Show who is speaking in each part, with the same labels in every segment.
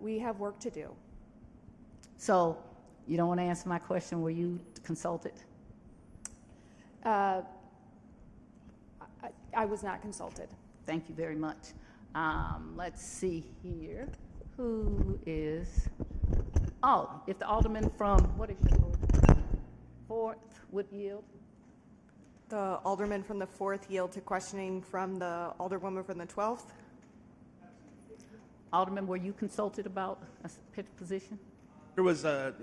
Speaker 1: we have work to do.
Speaker 2: So you don't want to answer my question, were you consulted?
Speaker 1: Uh, I I was not consulted.
Speaker 2: Thank you very much. Um, let's see here, who is, oh, if the alderman from, what is your, fourth would yield?
Speaker 3: The alderman from the 4th yield to questioning from the alderwoman from the 12th.
Speaker 2: Alderman, were you consulted about a s- pit- position?
Speaker 4: There was a,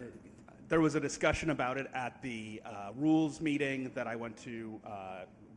Speaker 4: there was a discussion about it at the uh, rules meeting that I went to uh,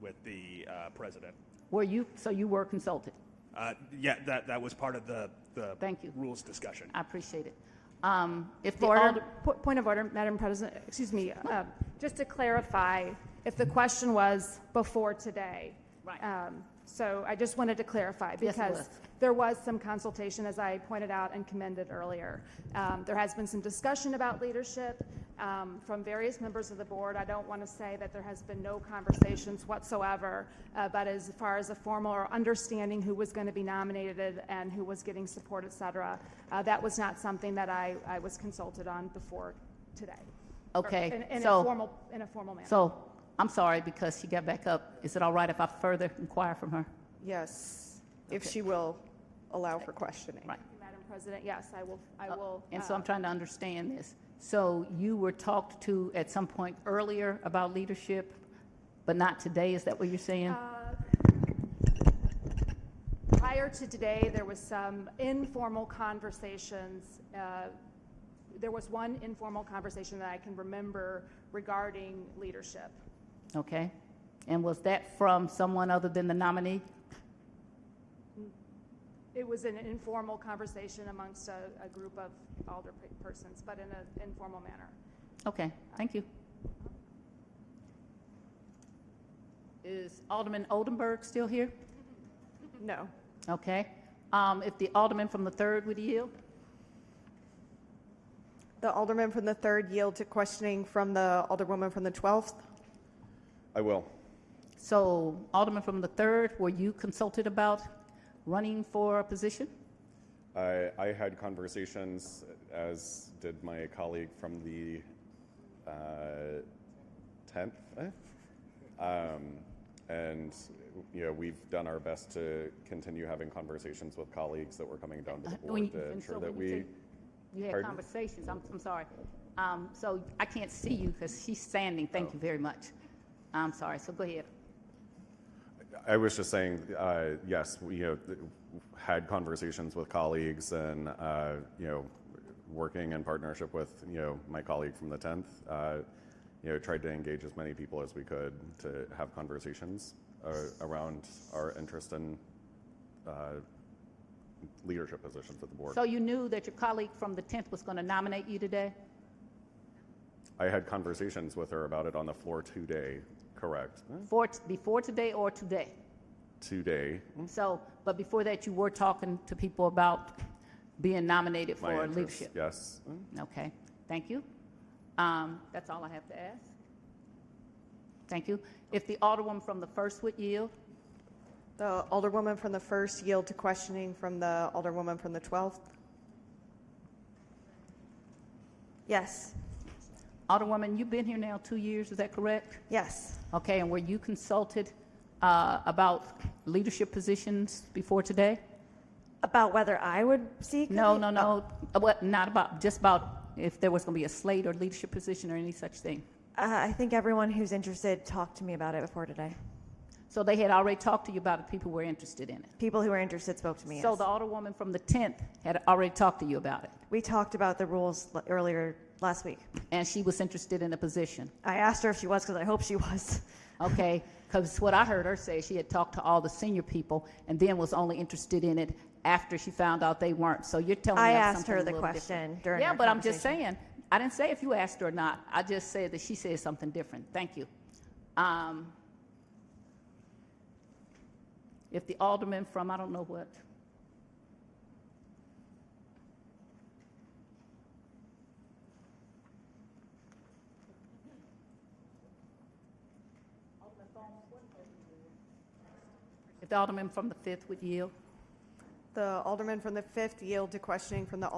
Speaker 4: with the uh, president.
Speaker 2: Were you, so you were consulted?
Speaker 4: Uh, Yeah, that, that was part of the, the.
Speaker 2: Thank you.
Speaker 4: Rules discussion.
Speaker 2: I appreciate it. Um, If the
Speaker 1: Order,
Speaker 2: alder,
Speaker 1: po- point of order, Madam President, excuse me, um, just to clarify, if the question was before today.
Speaker 2: Right.
Speaker 1: um, So I just wanted to clarify,
Speaker 2: it
Speaker 1: because
Speaker 2: was.
Speaker 1: there was some consultation, as I pointed out and commended earlier. Um, There has been some discussion about leadership um, from various members of the board. I don't want to say that there has been no conversations whatsoever, uh, but as far as a formal or understanding who was going to be nominated and who was getting support, et cetera, uh, that was not something that I, I was consulted on before today. Or
Speaker 2: Okay,
Speaker 1: in- In a
Speaker 2: so-
Speaker 1: formal, in a formal manner.
Speaker 2: so, I'm sorry, because she got back up. Is it all right if I further inquire from her?
Speaker 3: Yes, if she will allow for questioning.
Speaker 2: Right.
Speaker 1: Madam President, yes, I will, I will.
Speaker 2: And so
Speaker 1: uh,
Speaker 2: I'm trying to understand this. So you were talked to at some point earlier about leadership, but not today, is that what you're saying?
Speaker 1: Prior to today, there was some informal conversations. uh, There was one informal conversation that I can remember regarding leadership.
Speaker 2: Okay? And was that from someone other than the nominee?
Speaker 1: It was an informal conversation amongst a, a group of alder pe- persons, but in an informal manner.
Speaker 2: Okay, thank you. Is Alderman Oldenburg still here?
Speaker 3: No.
Speaker 2: Okay. Um, If the alderman from the third would yield?
Speaker 3: The alderman from the 3rd yield to questioning from the alderwoman from the 12th.
Speaker 5: I will.
Speaker 2: So Alderman from the third, were you consulted about running for a position?
Speaker 5: I, I had conversations, as did my colleague from the uh, 10th. eh? Um, and, you know, we've done our best to continue having conversations with colleagues that were coming down to the
Speaker 2: Uh, When
Speaker 5: board
Speaker 2: you-
Speaker 5: to
Speaker 2: and
Speaker 5: ensure
Speaker 2: so
Speaker 5: that
Speaker 2: when you
Speaker 5: we,
Speaker 2: say You had
Speaker 5: Pardon?
Speaker 2: conversations, I'm, I'm sorry. Um, so I can't see you because she's standing,
Speaker 5: Oh.
Speaker 2: thank you very much. I'm sorry, so go ahead.
Speaker 5: I was just saying, uh, yes, we you know, th- had conversations with colleagues and, uh, you know, working in partnership with, you know, my colleague from the 10th, uh, you know, tried to engage as many people as we could to have conversations uh, around our interest in uh, leadership positions at the board.
Speaker 2: So you knew that your colleague from the 10th was going to nominate you today?
Speaker 5: I had conversations with her about it on the floor today, correct?
Speaker 2: For, t- before today or today?
Speaker 5: Today,
Speaker 2: So, but before that, you were talking to people about being nominated
Speaker 5: my
Speaker 2: for
Speaker 5: interest,
Speaker 2: leadership?
Speaker 5: yes.
Speaker 2: Okay, thank you. Um, that's all I have to ask. Thank you. If the Alderwoman from the first would yield?
Speaker 3: The alderwoman from the 1st yield to questioning from the alderwoman from the 12th. Yes,
Speaker 2: Alderwoman, you've been here now two years, is that correct?
Speaker 3: yes,
Speaker 2: Okay, and were you consulted uh, about leadership positions before today?
Speaker 6: About whether I would seek?
Speaker 2: No, no, no, Uh, what, not about, just about if there was going to be a slate or leadership position or any such thing?
Speaker 6: Uh, I think everyone who's interested talked to me about it before today.
Speaker 2: So they had already talked to you about it, people were interested in it?
Speaker 6: People who were interested spoke to me.
Speaker 2: So
Speaker 6: yes.
Speaker 2: the Alderwoman from the 10th had already talked to you about it,
Speaker 6: we talked about the rules l- earlier last week.
Speaker 2: and she was interested in a position?
Speaker 6: I asked her if she was because I hope she was.
Speaker 2: Okay, because what I heard her say, she had talked to all the senior people and then was only interested in it after she found out they weren't. So you're telling me
Speaker 6: I
Speaker 2: that's
Speaker 6: asked her
Speaker 2: something a
Speaker 6: the
Speaker 2: little different.
Speaker 6: question during
Speaker 2: Yeah,
Speaker 6: our
Speaker 2: but I'm just saying, I didn't say if you asked her or not. I just said that she said something different. Thank you. Um, if the alderman from, I don't know what, if the alderman from the fifth would yield.
Speaker 3: the alderman from the 5th yield to questioning from the